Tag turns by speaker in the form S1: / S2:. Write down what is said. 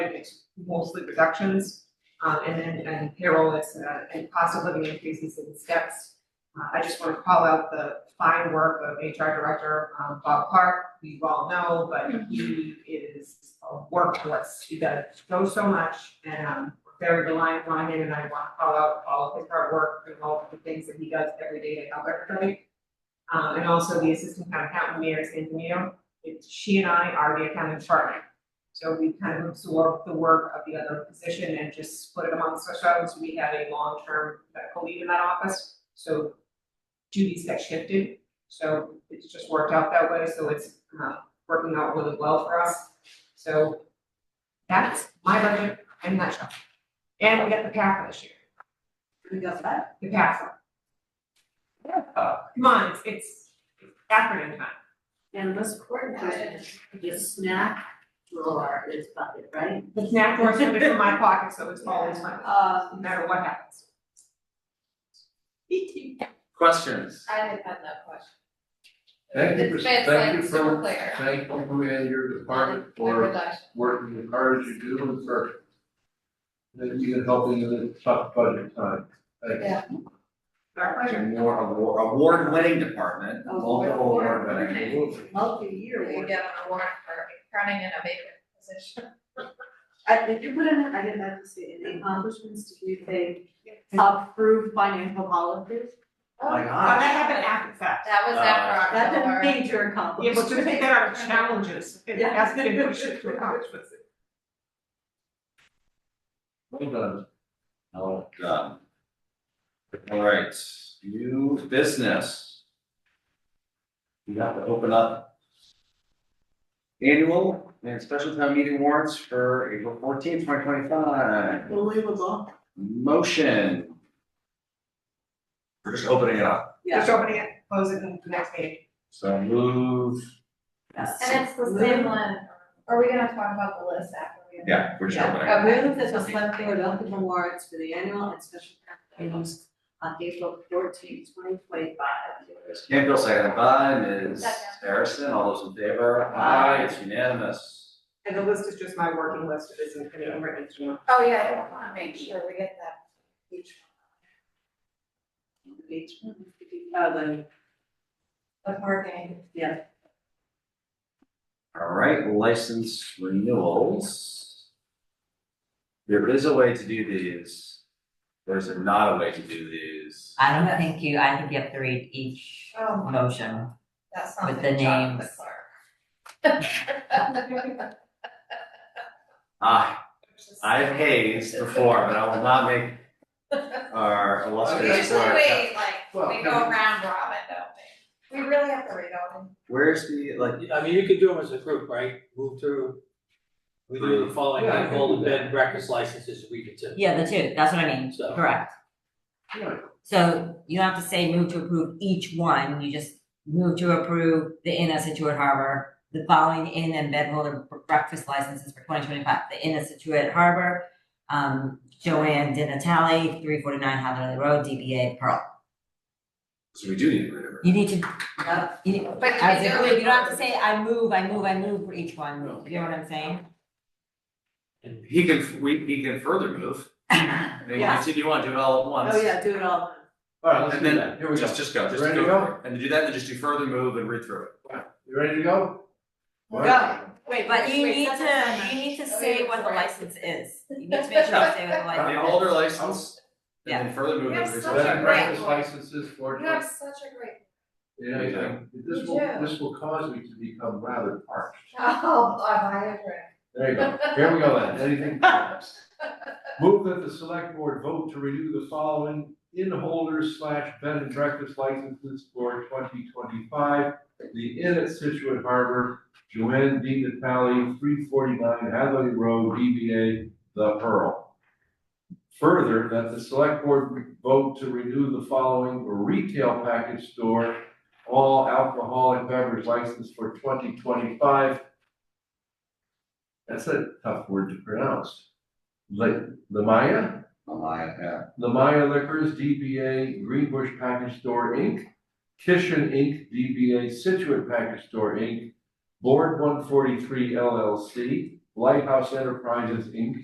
S1: and it's mostly reductions. Um, and then, and payroll is, uh, and cost of living increases and steps. Uh, I just wanna call out the fine work of HR Director, um, Bob Clark, we all know, but he is a workhorse. He does so, so much, and, um, we're very reliant on him, and I wanna call out all of his hard work and all of the things that he does every day to help everybody. Um, and also the Assistant Town Accountant, Mayor Santamino, it's she and I are the accounting department. So we kind of absorbed the work of the other position and just split it amongst ourselves. We had a long-term medical lead in that office, so duties got shifted. So it's just worked out that way, so it's uh working out really well for us. So that's my budget in a nutshell. And we got the PAC this year,
S2: We got that?
S1: the PAC. Come on, it's it's acronym time.
S2: And this coordinator, the snack drawer is bucket, right?
S1: The snack drawer is coming from my pocket, so it's always my
S2: Uh,
S1: no matter what happens.
S3: Questions?
S4: I had had that question.
S3: Thank you for,
S4: It's- it's
S3: thank
S4: like
S3: you
S4: so
S3: for,
S4: clear.
S3: thank you for your- your department
S4: Um, my
S3: for
S4: reduction.
S3: working as hard as you do and for that you can help in the tough budget time. Thank you.
S4: Yeah.
S1: Our pleasure.
S5: Award, award, award-winning department,
S2: Oh,
S5: multiple award-winning.
S3: Absolutely.
S2: multi-year
S4: You
S2: award.
S4: get an award for crowning in a vacant position.
S2: I, did you put in, I didn't have to say any accomplishments, did you say Uh, approved financial policies?
S5: My
S1: Oh, that
S5: gosh.
S1: happened after the fact.
S4: That was
S5: Uh,
S4: after
S2: That's a
S4: October.
S2: major
S1: Yeah,
S2: accomplishment.
S1: but to take that out of challenges, it
S2: Yeah.
S1: has to be pushed to accomplishments.
S3: Well done.
S5: Well done. All right, new business. We have to open up annual and special town meeting warrants for April fourteenth, twenty twenty-five.
S2: Unbelievable.
S5: Motion. We're just opening it up,
S2: Yeah.
S1: Just opening it, close it in the next meeting.
S5: so move,
S4: And it's the same one, are we gonna talk about the list after we?
S5: yeah, we're just
S2: Yeah.
S5: opening. it.
S2: A move that the select board open the warrants for the annual and special meetings on April fourteenth, twenty twenty-five.
S5: Ms. Campbell, seconded by Ms.
S4: Second.
S5: Harrison, all those in favor?
S2: Aye.
S5: It's unanimous.
S1: And the list is just my working list, it isn't any written, you know.
S4: Oh, yeah, I wanna make sure we get that each
S2: Each one, uh, the,
S4: one, the parking.
S2: yeah,
S5: All right, license renewals. There is a way to do these. There's not a way to do these.
S6: I don't think you, I think you have to read each
S4: Oh,
S6: motion.
S4: that's not
S6: With
S4: the
S6: the
S4: job of the
S6: names.
S4: clerk.
S5: Ah, I've hazed before, but I will not make our
S4: We
S5: illustrious
S4: usually
S5: clerk.
S4: wait, like,
S3: Well,
S4: we go around robin, don't we? We really have to read all of them.
S5: Where's the, like,
S7: I mean, you could do them as a group, right? Move through. We do the following,
S3: Yeah, I
S7: like,
S3: can
S7: all
S3: do
S7: the
S3: that.
S7: bed and breakfast licenses, we could do.
S6: Yeah, the two, that's what I mean,
S7: So-
S6: correct.
S3: Yeah.
S6: So you don't have to say move to approve each one, you just move to approve the Inn at Situate Harbor, the following Inn and Bed Holder breakfast licenses for twenty twenty-five, the Inn at Situate Harbor, um, Joanne Di Natale, three forty-nine Hathaway Road, DBA Pearl.
S5: so we do need to renew.
S6: You need to,
S2: yeah.
S6: you need,
S4: But you
S6: as
S4: can
S6: a
S4: do
S6: group,
S4: it
S6: you don't have to
S4: first.
S6: say, I move, I move, I move for each one, you know what I'm saying?
S5: He can, we, he can further move. I mean,
S2: Yeah.
S5: if you want, do it all at once.
S2: Oh, yeah, do it all.
S3: All right, let's
S5: And
S3: do that. Here
S5: then,
S3: we go.
S5: just, just go, just
S3: Ready to
S5: go.
S3: go?
S5: for it. And to do that, then just do further move and read through it.
S3: You ready to go?
S2: Go. Wait,
S6: But
S2: wait,
S6: you
S2: wait,
S6: need
S2: that's
S6: to,
S2: not-
S6: you need to
S4: Oh,
S6: say
S4: yeah,
S6: what the
S4: sorry.
S6: license is. You need to make sure you say what the license is.
S5: The older license, and then further move
S4: We
S5: and
S4: have
S5: read
S4: such
S5: through it.
S3: Bed and
S4: a
S3: breakfast
S4: great-
S3: licenses for.
S4: You have such a great.
S3: Yeah,
S5: You
S3: yeah. This
S4: You
S3: will,
S4: do.
S3: this will cause me to become rather parched.
S4: Oh, I agree.
S3: There you go. Here we go then. Anything else? Move that the select board vote to renew the following inn holders slash bed and breakfast licenses for twenty twenty-five. The Inn at Situate Harbor, Joanne D. Natale, three forty-nine Hadley Road, DBA The Pearl. Further, that the select board vote to renew the following retail package store, all alcoholic beverage license for twenty twenty-five. That's a tough word to pronounce. Like, Lamaya,
S5: Online, yeah.
S3: Lamaya Liquors, DBA Greenbush Package Store, Inc., Kishan Inc., DBA Situate Package Store, Inc., Board one forty-three LLC, Lighthouse Enterprises, Inc.,